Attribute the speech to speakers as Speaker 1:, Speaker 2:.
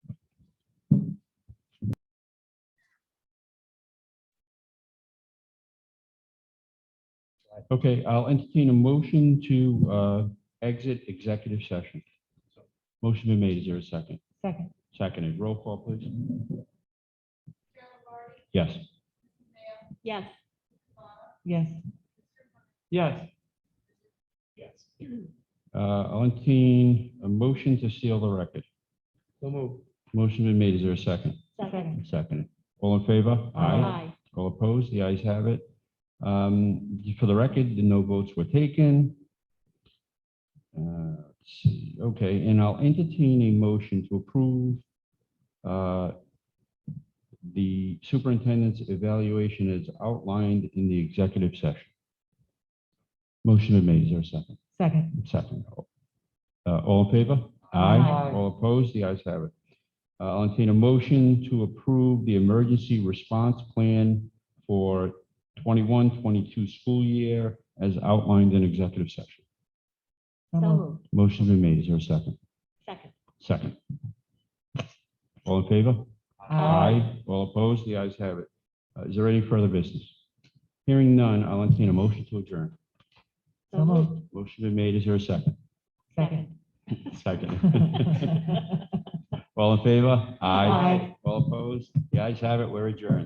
Speaker 1: Okay, I'll entertain a motion to uh, exit executive session. Motion been made. Is there a second?
Speaker 2: Second.
Speaker 1: Seconded. Roll call, please. Yes.
Speaker 2: Yes. Yes.
Speaker 1: Yes. Yes. Uh, I'll entertain a motion to seal the record.
Speaker 3: So move.
Speaker 1: Motion been made. Is there a second?
Speaker 2: Second.
Speaker 1: Seconded. All in favor?
Speaker 2: Aye.
Speaker 1: All opposed? The ayes have it. Um, For the record, the no votes were taken. Uh, let's see. Okay, and I'll entertain a motion to approve uh, the superintendent's evaluation as outlined in the executive session. Motion been made. Is there a second?
Speaker 2: Second.
Speaker 1: Second. Uh, All in favor?
Speaker 2: Aye.
Speaker 1: All opposed? The ayes have it. Uh, I'll entertain a motion to approve the emergency response plan for 21-22 school year as outlined in executive session.
Speaker 2: So moved.
Speaker 1: Motion's been made. Is there a second?
Speaker 2: Second.
Speaker 1: Second. All in favor?
Speaker 2: Aye.
Speaker 1: All opposed? The ayes have it. Uh, Is there any further business? Hearing none, I'll entertain a motion to adjourn.
Speaker 2: So moved.
Speaker 1: Motion been made. Is there a second?
Speaker 2: Second.
Speaker 1: Second. All in favor?
Speaker 2: Aye.
Speaker 1: All opposed? The ayes have it. We're adjourned.